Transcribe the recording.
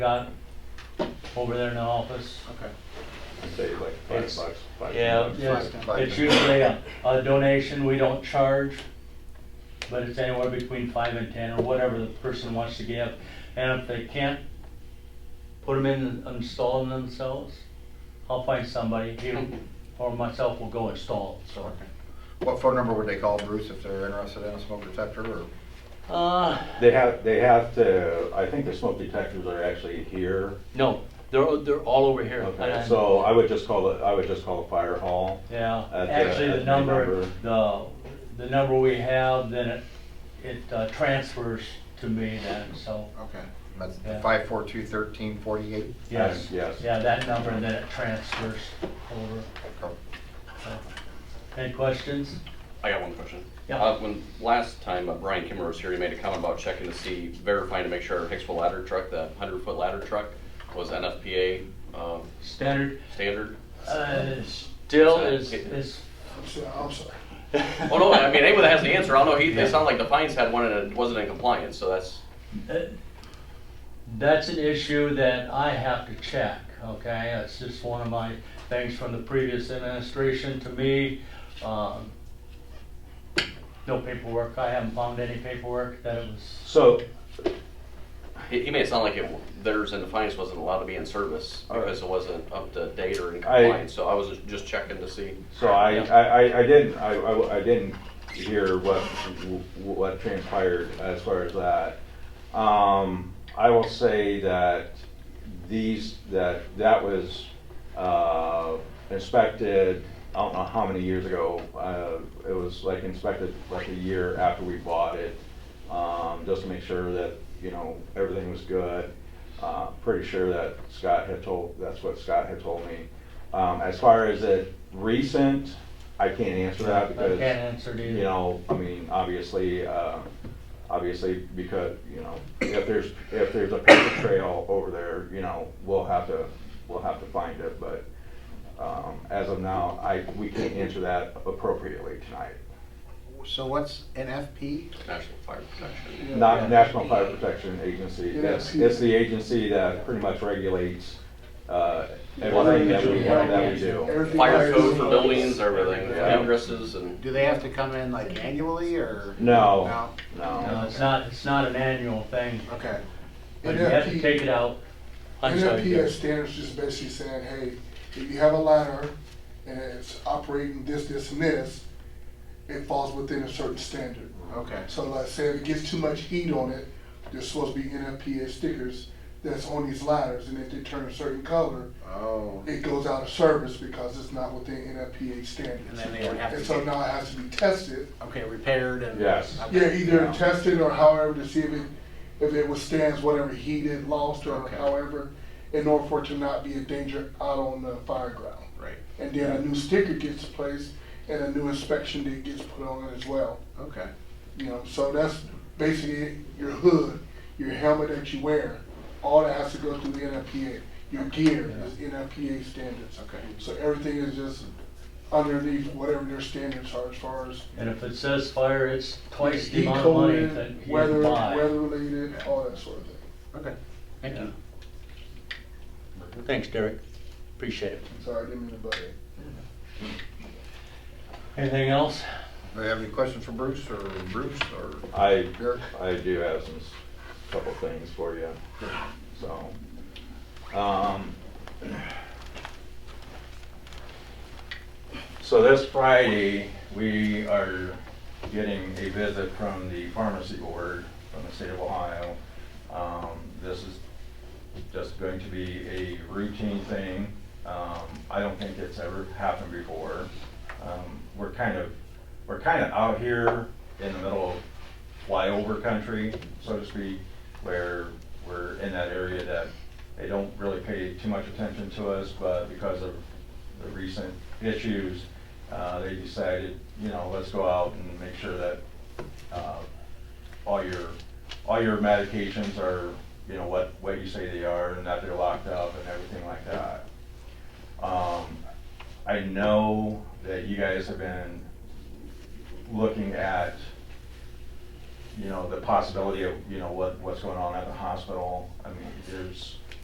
got over there in the office. Okay. Say like It's- five bucks. five yeah, bucks. yeah. Five, five. It's usually a, a donation, we don't charge, but it's anywhere between five and ten or whatever the person wants to give. And if they can't put them in and install them themselves, I'll find somebody here or myself will go install, it, so. What phone number would they call Bruce if they're interested in a smoke detector or? Uh, They have, they have to, I think the smoke detectors are actually here. no, they're, they're all over here. Okay, so I would just call it, I would just call the fire hall. Yeah, At the- actually, at the the number, number. the, the number we have, then it, it uh, transfers to me then, so, Okay. That's Yeah. five four two thirteen forty-eight? yes. yes. Yeah, that number, and then it transfers over. so. Any questions? I got one question. Yeah. Uh, when last time uh, Brian Kimmer was here, he made a comment about checking to see, verifying to make sure our Hicksville ladder truck, that hundred foot ladder truck was NFPA, um, Standard, standard. uh, still is, is, I'm sorry, I'm sorry. Oh, no, I mean, anyone that has the answer, I don't know, he, it sounded like the Pines had one and it wasn't in compliance, so that's, uh, that's an issue that I have to check, okay? It's just one of my things from the previous administration to me. um, No paperwork, I haven't found any paperwork that it was, So, he, he made it sound like it, theirs in the Pines wasn't allowed to be in service All right. because it wasn't up to date or in I- compliance, so I was just checking to see. so I, Yeah. I, I- I didn't, I, I- I didn't hear what, what transpired as far as that. Um, I will say that these, that, that was, uh, inspected, I don't know how many years ago. Uh, it was like inspected like a year after we bought it, um, just to make sure that, you know, everything was good. Uh, pretty sure that Scott had told, that's what Scott had told me. Um, as far as it recent, I can't answer that I can't because answer to you you. know, I mean, obviously, uh, obviously, because, you know, if there's, if there's a paper trail over there, you know, we'll have to, we'll have to find it, but, um, as of now, I, we can't answer that appropriately tonight. So what's NFP? National Fire Protection. Not National Fire Protection Agency, it's, Yeah. it's the agency that pretty much regulates, uh, everything that we, that we do. Everything Fire fire code is- for buildings, everything, Yeah. addresses and, Do they have to come in like annually or? No, no. No, it's not, it's not an annual thing, Okay. but you have to NFP take it out. I'm sorry, NFPA Jeff. standards is basically saying, hey, if you have a ladder and it's operating this, this, and this, it falls within a certain standard. Okay. So like say if it gets too much heat on it, there's supposed to be NFPA stickers that's on these ladders, and if they turn a certain color, Oh. it goes out of service because it's not within NFPA And standards. then they would have And to so get, now it has to be tested okay, repaired and? Yes. okay. Yeah, either Yeah. tested or however to see if it, if it withstands whatever heat it lost or Okay. however, in order for it to not be a danger out on the fire ground. Right, And then a new sticker gets placed and a new inspection that gets put on it as well. okay. You know, so that's basically your hood, your helmet that you wear, all that has to go through the NFPA. Your gear is NFPA standards. Okay. So everything is just underneath whatever their standards are as far as And if it says fire, it's twice the Heat amount of money coded, that you Weather, buy. weather related, all that sort of thing. Okay, thank you. Thanks, Derek. Appreciate it. Sorry, I didn't mean to butt in. Anything else? Do you have any questions for Bruce or Bruce or? I, Derek? I do have some, s- couple things for you, so. um, So this Friday, we are getting a visit from the pharmacy board from the state of Ohio. Um, This is just going to be a routine thing. Um, I don't think it's ever happened before. Um, We're kind of, we're kind of out here in the middle of flyover country, so to speak, where we're in that area that they don't really pay too much attention to us, but because of the recent issues, uh, they decided, you know, let's go out and make sure that uh, all your, all your medications are, you know, what, what you say they are and that they're locked up and everything like that. Um, I know that you guys have been looking at, you know, the possibility of, you know, what, what's going on at the hospital. I mean, there's,